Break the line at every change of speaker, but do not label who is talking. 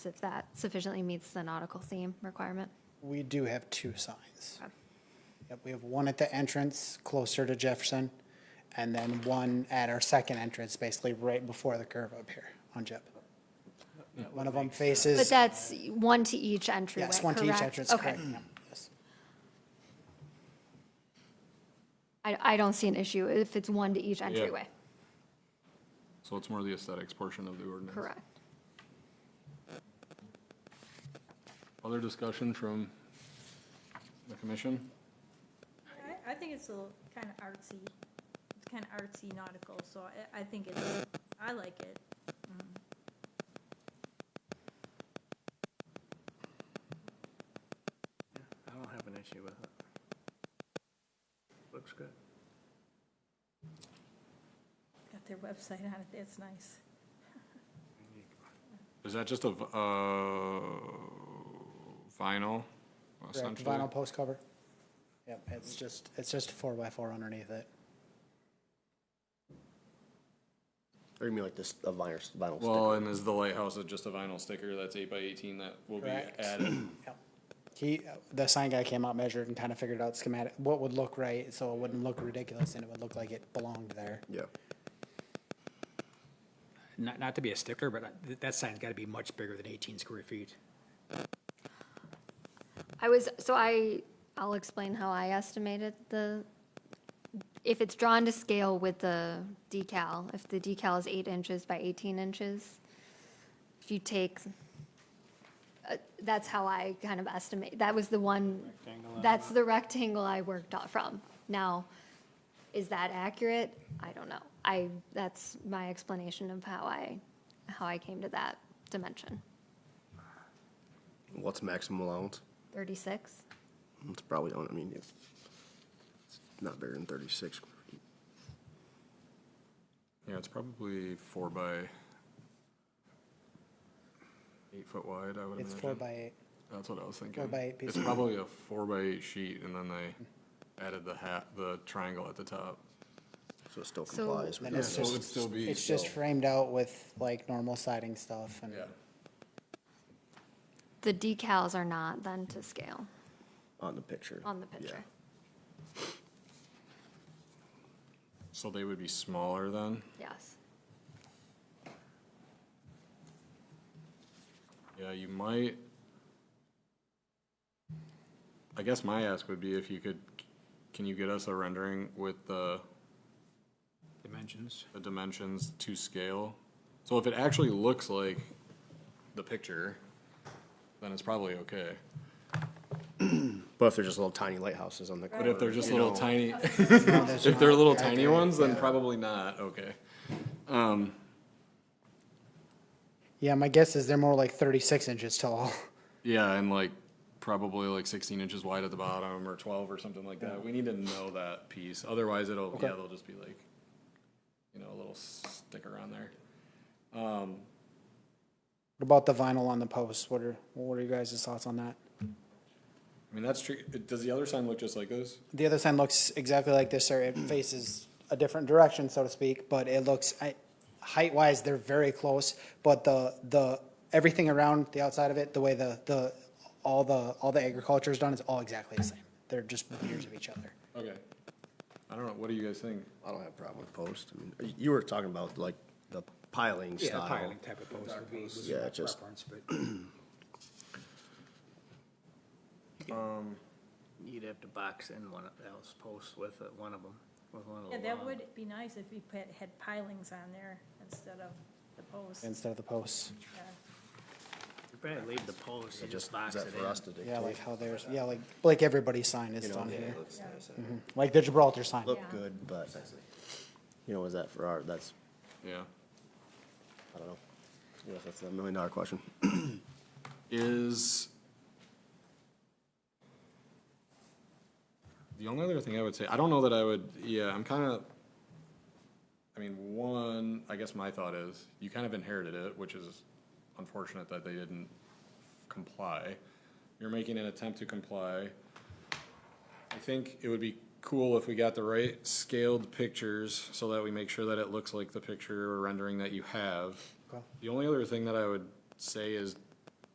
if that sufficiently meets the nautical theme requirement.
We do have two signs.
Okay.
Yep, we have one at the entrance closer to Jefferson, and then one at our second entrance, basically right before the curve up here on Jep. One of them
But
faces,
that's one to each entryway,
yes, one to each
correct?
entrance,
Okay.
correct. yep, yes.
I, I don't see an issue if it's one to each entryway,
So it's more the aesthetics portion of the ordinance.
correct?
Other discussion from the commission?
I, I think it's a little kind of artsy, it's kind of artsy nautical, so I, I think it's, I like it.
I don't have an issue with it. Looks good.
Got their website on it, that's nice.
Is that just a, v- uh, vinyl
Correct,
essentially?
Vinyl post cover. Yep, it's just, it's just a four by four underneath it.
Or you mean like this, a vinyl, vinyl
Well,
sticker?
and is the lighthouse is just a vinyl sticker that's eight by eighteen that will be
Correct.
added?
Yep. He, the sign guy came out, measured and kind of figured out schematic, what would look right, so it wouldn't look ridiculous and it would look like it belonged there.
Yeah.
not, not to be a stickler, but I- that sign's got to be much bigger than 18 square feet.
I was, so I, I'll explain how I estimated the, if it's drawn to scale with the decal, if the decal is eight inches by 18 inches, if you take, uh, that's how I kind of estimate, that was the one, that's the rectangle I worked out from. Now, is that accurate? I don't know. I, that's my explanation of how I, how I came to that dimension.
What's maximum allowance?
36?
It's probably on, I mean, it's not bigger than thirty-six.
Yeah, it's probably four by eight foot wide, I would imagine.
It's four by eight.
That's what I was thinking.
by eight
It's
piece.
probably a four by eight sheet and then they added the hat, the triangle at the top.
So it still
So-
complies with
Then it's
that.
just-
So it'd still be.
It's just framed out with like normal siding stuff and.
Yeah.
The decals are not then to scale
on the picture.
on the
Yeah.
picture.
So they would be smaller then?
Yes.
Yeah, you might. I guess my ask would be if you could, can you get us a rendering with the,
Dimensions.
the dimensions to scale? So if it actually looks like the picture, then it's probably okay.
But if they're just little tiny lighthouses on the
But if they're
corner,
just
you
little
know,
tiny,
No, there's
if
not.
they're little tiny ones, then probably not, okay. Um,
Yeah, my guess is they're more like thirty-six inches tall.
yeah, and like probably like sixteen inches wide at the bottom or twelve or something like that. We need to know that piece. Otherwise it'll, yeah, they'll just be like, you know, a little sticker on there. Um,
What about the vinyl on the post? What are, what are you guys' thoughts on that?
I mean, that's true. Does the other sign look just like this?
The other sign looks exactly like this, or it faces a different direction, so to speak, but it looks, I, height-wise, they're very close, but the, the, everything around the outside of it, the way the, the, all the, all the agriculture is done is all exactly the same. They're just mirrors of each other.
Okay. I don't know. What do you guys think?
I don't have a problem with post. I mean, y- you were talking about like the piling
Yeah,
style.
piling type of post would be was
Yeah,
my
just-
preference, but
You'd have to box in one of those posts with it, one of them, with one of the.
Yeah, that
long-
would be nice if you put, had pilings on there instead of the posts.
Instead of the posts,
yeah.
You probably leave the post
It
and just
just,
box
is
it
that for us
in.
to dictate?
yeah, like how theirs, yeah, like, like everybody's sign is
You know,
done
yeah,
here, Mm-hmm.
looks nice.
like the Gibraltar sign.
Look
Yeah.
good, but, you know, is that for our, that's,
Yeah.
I don't know. Yeah, that's a million dollar question.
Is. The only other thing I would say, I don't know that I would, yeah, I'm kind of. I mean, one, I guess my thought is you kind of inherited it, which is unfortunate that they didn't comply. You're making an attempt to comply. I think it would be cool if we got the right scaled pictures so that we make sure that it looks like the picture or rendering that you have. The only other thing that I would say is